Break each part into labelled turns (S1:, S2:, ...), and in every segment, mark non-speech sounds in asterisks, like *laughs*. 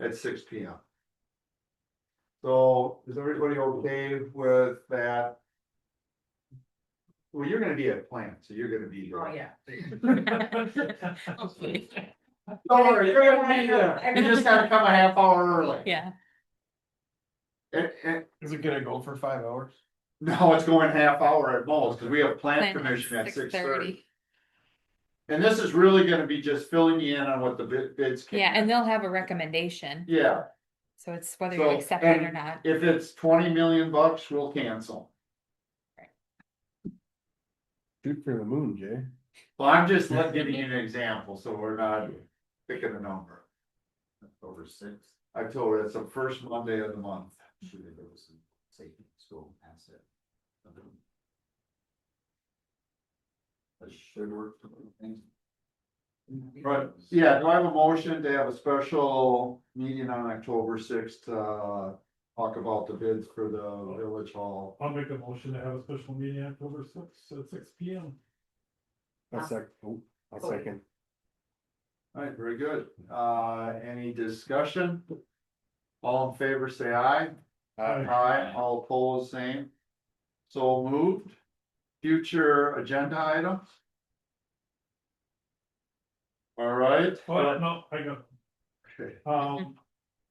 S1: at six P M. So is everybody okay with that? Well, you're gonna be at plant, so you're gonna be
S2: Oh,
S1: here. *laughs*
S2: yeah.
S1: Don't worry, you're gonna be here. You just gotta come a half hour early.
S3: *laughs* Yeah,
S1: And, and,
S4: Is it gonna go for five hours?
S1: no, it's going half hour at most, because we have plant
S3: Plant
S1: commission at six thirty.
S3: 6:30.
S1: And this is really gonna be just filling you in on what the bid, bids. came
S3: yeah,
S1: in.
S3: and they'll have a recommendation,
S1: Yeah,
S3: so it's whether you
S1: So,
S3: accept it or
S1: and-
S3: not.
S1: if it's twenty million bucks, we'll cancel.
S4: Shoot for the moon, Jay.
S1: Well, I'm just let- giving you an example, so we're not picking a number.
S5: October sixth.
S1: October, that's the first Monday of the month.
S5: Should have those safety school asset. That should work. for other things.
S1: Right, yeah, do I have a motion to have a special meeting on October sixth, uh, talk about the bids for the village hall?
S6: I'll make a motion to have a special meeting October sixth at six P M.
S4: A sec, oh, a second.
S1: Alright, very good, uh, any discussion? All in favor, say aye.
S4: Uh,
S1: Aye, all opposed, same. So moved. Future agenda items? Alright.
S6: But Oh, no, I got,
S1: Okay.
S6: um,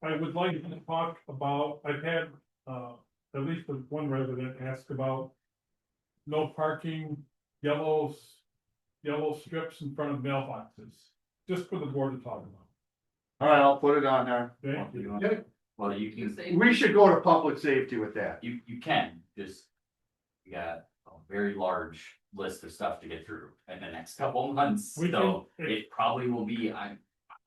S6: I would like to talk about, I've had, uh, at least one resident ask about. No parking, yellows, yellow strips in front of mailboxes, just for the board to talk about.
S1: Alright, I'll put it on there.
S6: okay?
S5: You want-
S1: Okay.
S5: Well, you can,
S1: We should go to public safety with that.
S5: you, you can, just. You got a very large list of stuff to get through in the next couple *laughs* of months,
S6: We
S5: so
S6: can-
S5: it probably will be, I,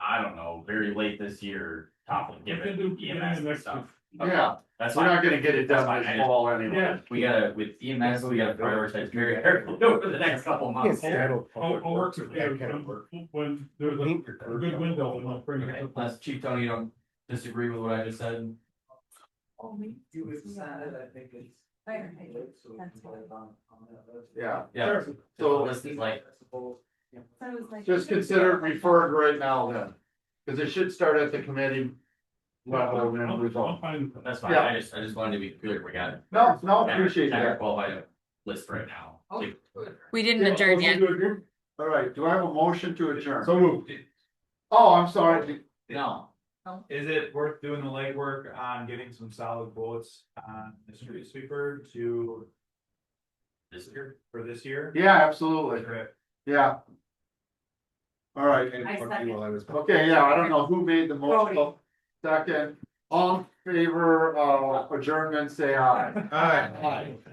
S5: I don't know, very late this year. Top of
S6: We can
S5: given
S6: do beginning
S5: EMS
S6: of
S5: and
S6: next
S5: stuff. Okay,
S1: Yeah,
S5: That's
S1: we're
S5: fine.
S1: not gonna get it done this fall
S6: Yeah,
S1: anyway.
S5: We gotta, with EMS, we gotta prioritize very carefully *laughs* over the next couple of months.
S6: Yeah.
S4: that'll-
S6: I'll, I'll work with
S4: That kind of
S6: you
S4: work.
S6: when- oh, when there's a
S4: Paint your
S6: a good
S4: curb.
S6: window and I'll bring it
S5: Okay,
S6: up.
S5: unless Chief Tony, you don't disagree with what I just said?
S1: Yeah,
S5: Yeah.
S1: So-
S5: So this is like,
S1: just consider it referred right now then, cause it should start at the committee. level and then
S6: I'll- I'll
S1: resolve.
S6: find it.
S5: that's fine,
S1: Yeah.
S5: I just, I just wanted to be clear, we got.
S1: No, no, appreciate
S5: ten or
S1: that. Oh,
S5: Twelve item list right now. Like,
S3: We didn't adjourn yet.
S1: Alright, do I have a motion to adjourn?
S4: So moved.
S1: Oh, I'm sorry, no.
S2: Oh.
S7: Is it worth doing the legwork on getting some solid bullets on the street sweeper to,
S5: This year,
S7: for this year?
S1: Yeah, absolutely, yeah. All right,
S2: I second.
S1: okay, yeah, I don't know who made the motion,
S2: Cody.
S1: second, all in favor of adjournment, say aye.
S4: Alright.
S1: Aye.